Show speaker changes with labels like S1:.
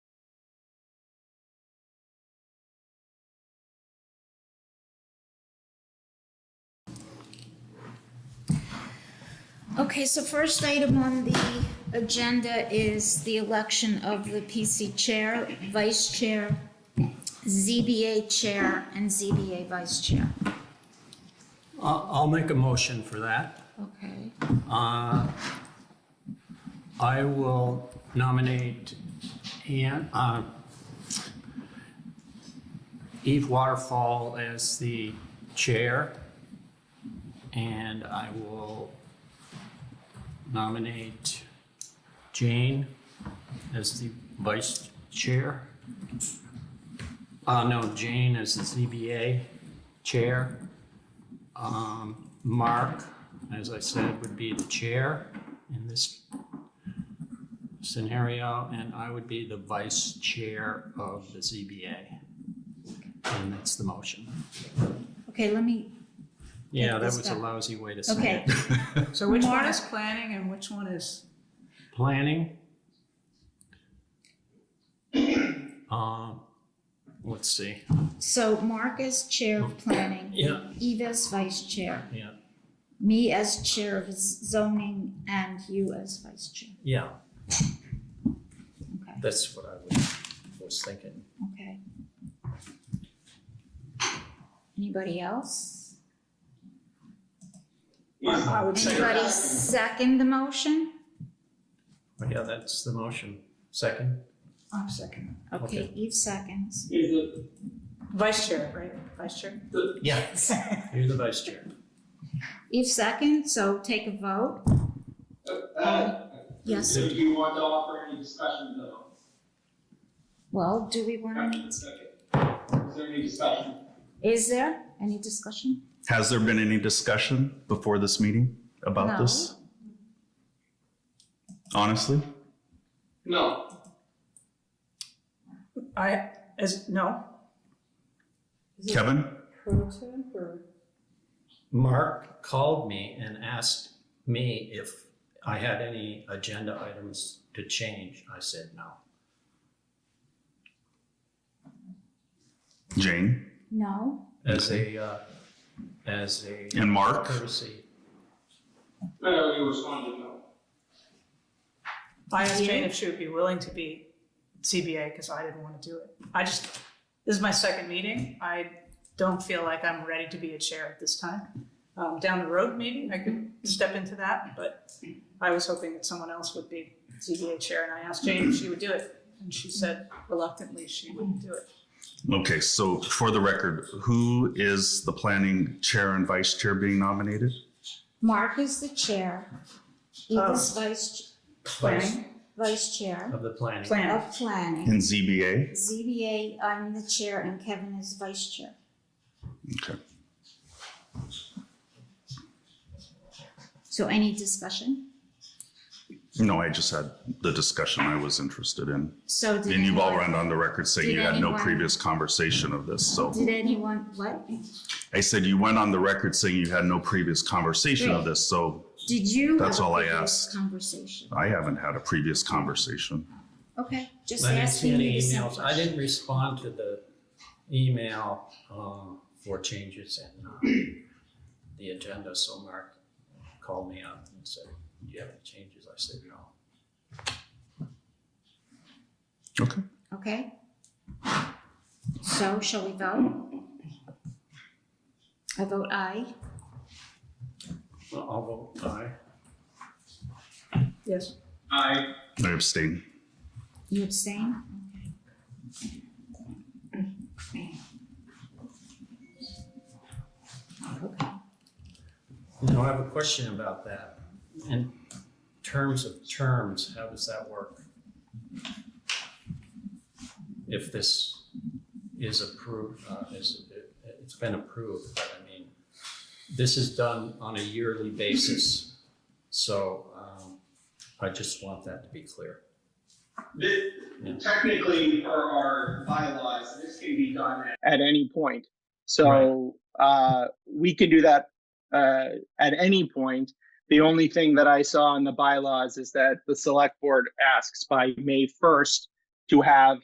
S1: Okay, so first item on the agenda is the election of the PC Chair, Vice Chair, ZBA Chair, and ZBA Vice Chair.
S2: I'll, I'll make a motion for that.
S1: Okay.
S2: Uh, I will nominate Ann, uh, Eve Waterfall as the chair. And I will nominate Jane as the vice chair. Uh, no, Jane as the ZBA chair. Um, Mark, as I said, would be the chair in this scenario, and I would be the vice chair of the ZBA. And that's the motion.
S1: Okay, let me,
S2: Yeah, that
S1: this
S2: was a
S1: back.
S2: lousy way to
S1: okay,
S2: say it.
S3: So which one
S1: Mark?
S3: is planning and which one is,
S2: Planning. Um, let's see,
S1: so Mark as Chair of Planning.
S2: Yeah.
S1: Eve as Vice Chair,
S2: yeah,
S1: me as Chair of Zoning, and you as Vice Chair.
S2: yeah,
S1: Okay,
S2: that's what I was, was thinking.
S1: okay. Anybody else?
S3: I would say,
S1: Anybody second the motion?
S2: Yeah, that's the motion. Second?
S3: I'm second.
S1: Okay,
S2: Okay.
S1: Eve seconds.
S4: Is the,
S3: Vice chair, right? Vice chair?
S2: Yeah. You're the vice chair.
S1: Eve second, so take a vote.
S4: uh, uh,
S1: Yes.
S4: do you want to offer any discussion though?
S1: Well, do we want,
S4: Okay. Is there any discussion?
S1: is there any discussion?
S5: Has there been any discussion before this meeting about
S1: No.
S5: this? Honestly?
S4: No.
S3: I, is, no?
S5: Kevin?
S2: Mark called me and asked me if I had any agenda items to change. I said no.
S5: Jane?
S1: No?
S2: As a, uh, as a
S5: And Mark?
S2: courtesy.
S4: No, you responded no.
S3: I asked Jane if she would be willing to be CBA because I didn't want to do it. I just, this is my second meeting. I don't feel like I'm ready to be a chair at this time. Um, down the road, maybe I could step into that, but I was hoping that someone else would be CBA chair and I asked Jane if she would do it. And she said reluctantly she wouldn't do it.
S5: Okay, so for the record, who is the planning chair and vice chair being nominated?
S1: Mark is the chair. Eve is vice,
S2: Vice
S1: planning, vice chair
S2: Of the planning.
S3: Plan.
S1: of planning.
S5: In ZBA?
S1: ZBA, I'm the chair and Kevin is vice chair.
S5: Okay.
S1: So any discussion?
S5: No, I just had the discussion I was interested in.
S1: So did
S5: And you've all
S1: anyone-
S5: run on the record saying
S1: Did
S5: you had no
S1: anyone-
S5: previous conversation of this, so.
S1: Did anyone, what?
S5: I said you went on the record saying you had no previous conversation of
S1: Right.
S5: this, so
S1: Did you?
S5: That's
S1: have a
S5: all I
S1: previous
S5: asked.
S1: Conversation.
S5: I haven't had a previous conversation.
S1: Okay, just
S2: I didn't see
S1: asking
S2: any
S1: you some
S2: emails. I
S1: questions.
S2: didn't respond to the email, um, for changes in, uh, the agenda, so Mark called me up and said, do you have any changes? I said no.
S5: Okay.
S1: Okay. So shall we vote? I vote aye.
S2: Well, I'll vote aye.
S3: Yes.
S4: I,
S5: I abstain.
S1: You abstain? Okay.
S2: Now, I have a question about that. In terms of terms, how does that work? If this is approved, uh, is, it- it's been approved, but I mean, this is done on a yearly basis. So, um, I just want that to be clear.
S4: this, technically per our bylaws, this can be done at. any point. So, uh, we can do that, uh, at any point. The only thing that I saw in the bylaws is that the select board asks by May first to have